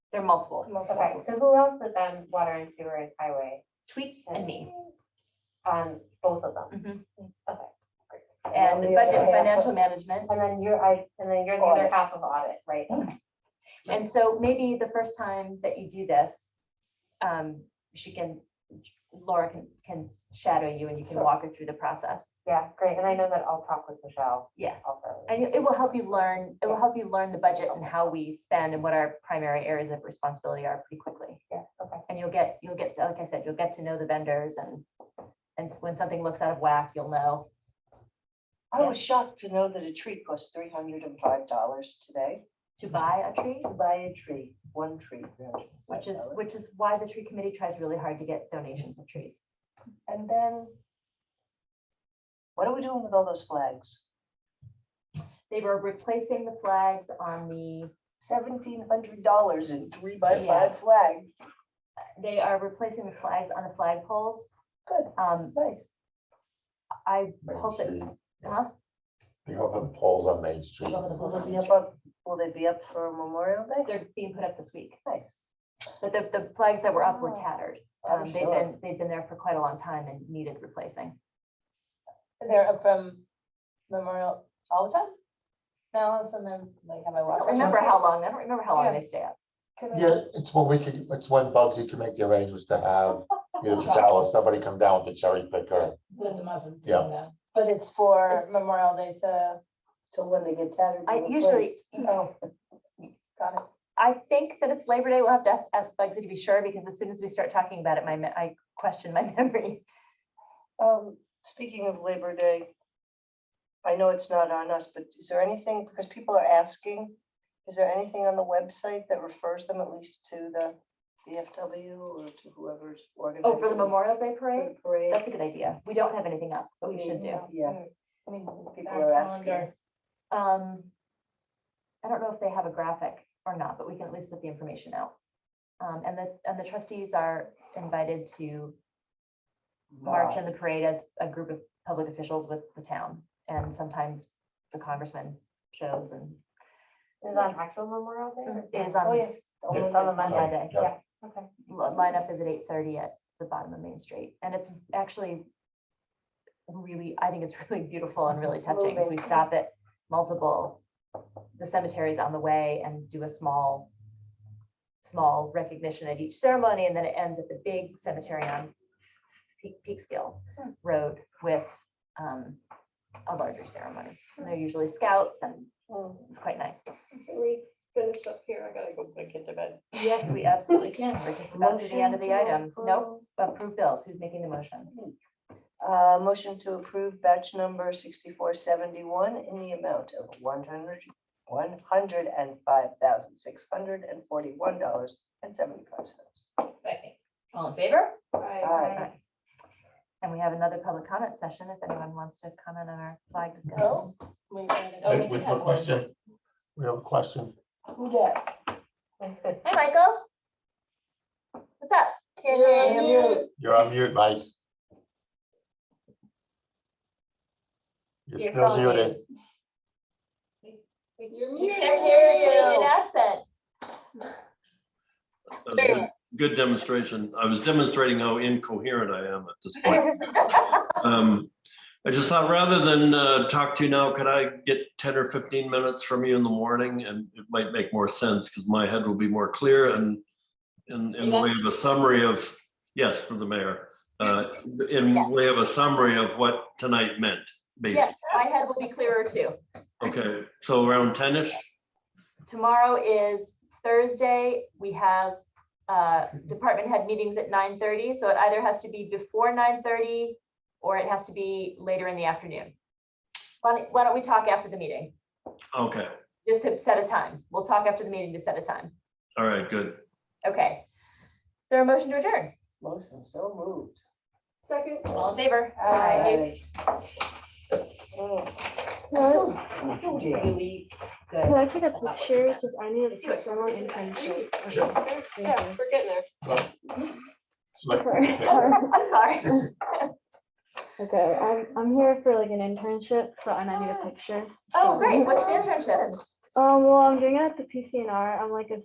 There are multiple, Okay, so who else is on water and sewer and highway? tweets and me. On both of them? Mhm. Okay, And the budget and other half financial management. and then you're, I, and then you're the other Audit. half of audit, right? Mm-hmm. And so maybe the first time that you do this, um, she can, Laura can, can shadow you and you can Sure. walk her through the process. Yeah, great, and I know that I'll talk with Michelle Yeah. also. And it it will help you learn, it will help you learn the budget and how we spend and what our primary areas of responsibility are pretty quickly. Yeah, okay, And you'll get, you'll get, to like I said, you'll get to know the vendors and, and s- when something looks out of whack, you'll know. I was shocked to know that a tree costs three hundred and five dollars today. To buy a tree, To buy a tree, one tree. which is, which is why the tree committee tries really hard to get donations of trees. And then. What are we doing with all those flags? They were replacing the flags on the Seventeen hundred dollars in three by Yeah. five flags. they are replacing the flags on the flagpoles. Good, Um, nice. I Main hope that, Street. huh? You know, the poles on Main Street. Over the Will they be balloons. up, on- will they be up for Memorial Day? They're being put up this week. Nice. But the, the flags that were up were Oh, tattered. I'm Um, they've sure. been, they've been there for quite a long time and needed replacing. They're up from Memorial all the time? Now, sometimes like have I I watched? don't remember how long, I don't remember how long they stay up. Yeah, it's when we can, it's when Bugsy can make the arrangements to have, either Chadal or somebody come down with the cherry picker. Wouldn't imagine doing Yeah. that. But it's for Memorial Day to, Till when they get tattered. I and usually, replaced. Oh, got it. I think that it's Labor Day. We'll have to ask Bugsy to be sure because as soon as we start talking about it, my, me- I question my memory. Um, speaking of Labor Day, I know it's not on us, but is there anything, because people are asking, is there anything on the website that refers them at least to the VFW or to whoever's organizing? Oh, for the Memorial Day for parade? the Parade. That's a good idea. We don't have anything up, but we should do. Yeah, Mm. I mean, people our are asking. calendar. Um, I don't know if they have a graphic or not, but we can at least put the information out. Um, and the, and the trustees are invited to march in the parade as a group of public officials with the town. And sometimes the congressman shows and is it on actual Memorial Day? or- Mm-hmm. is on Oh, yeah. this Oh, this it's on the Monday. Monday. Yeah. Yeah. Okay, Li- Lineup is at eight thirty at the bottom of Main Street. And it's actually really, I think it's really beautiful and really touching because we moving. stop at multiple, the cemeteries on the way and do a small, small recognition at each ceremony. And then it ends at the big cemetery on Pe- Peekskill Road with um, a larger ceremony. And They're usually scouts and Mm. it's quite nice. Can we finish up here? I gotta go put a kid to bed. Yes, we absolutely can. We're just about to the end of the Motion to item. Nope, approve. approve bills. Who's making the motion? Uh, motion to approve batch number sixty-four seventy-one in the amount of one hundred, one hundred and five thousand, six hundred and forty-one dollars and seventy-five cents. Second. All in favor? Bye. And we have another public comment session if anyone wants to comment on our flag discussion. Oh, we got it. Oh, Hey, we We did have a have one. question. We have a question. Who dat? Hi, Michael. What's up? Can Yeah, I yeah. mute? You're on mute, Mike. You're You're still still on mute. muted. You're We muted. can't hear An you. accent. That was good- Good demonstration. I was demonstrating how incoherent I am at this point. Um, I just thought rather than uh, talk to you now, could I get 10 or 15 minutes from you in the morning? And it might make more sense because my head will be more clear and in, in the way of a summary of, yes, for the mayor. uh, In Yes. way of a summary of what tonight meant, Yes, basically. my head will be clearer too. Okay, so around 10-ish? Tomorrow is Thursday. We have uh, department head meetings at nine thirty, so it either has to be before nine thirty or it has to be later in the afternoon. Why don't- why don't we talk after the meeting, Okay, just to set a time? We'll talk after the meeting to set a time. all right, good. Okay. Is there a motion to adjourn? Motion so moved. Second. All in favor? Aye. Mm. Really good. Can I pick up the chair? Because I need to Do it. put someone in. You- Okay, thank Yeah, you. we're getting there. Select- I'm sorry. Okay, I'm, I'm here for like an internship, so and I need a picture. Oh, great. What's the internship? Um, well, I'm doing it at the PCNR. I'm like a